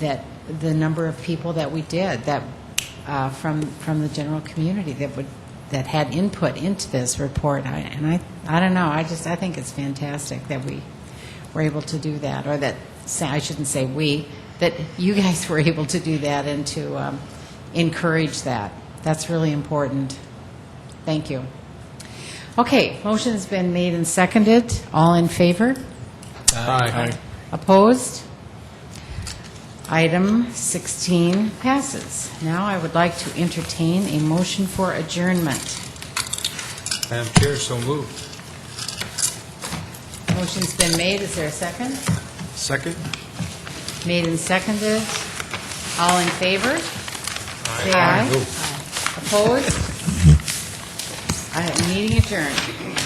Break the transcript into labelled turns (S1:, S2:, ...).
S1: that the number of people that we did, that, uh, from, from the general community that would, that had input into this report, I- and I, I don't know, I just, I think it's fantastic that we were able to do that, or that, say- I shouldn't say we, that you guys were able to do that and to um, encourage that. That's really important. Thank you. Okay, motion's been made and seconded. All in favor?
S2: Aye.
S1: Opposed? Item 16 passes. Now I would like to entertain a motion for adjournment.
S2: Madam Chair, so moved.
S1: Motion's been made, is there a second?
S2: Second?
S1: Made and seconded. All in favor? Say aye. Opposed? I have meeting adjourned.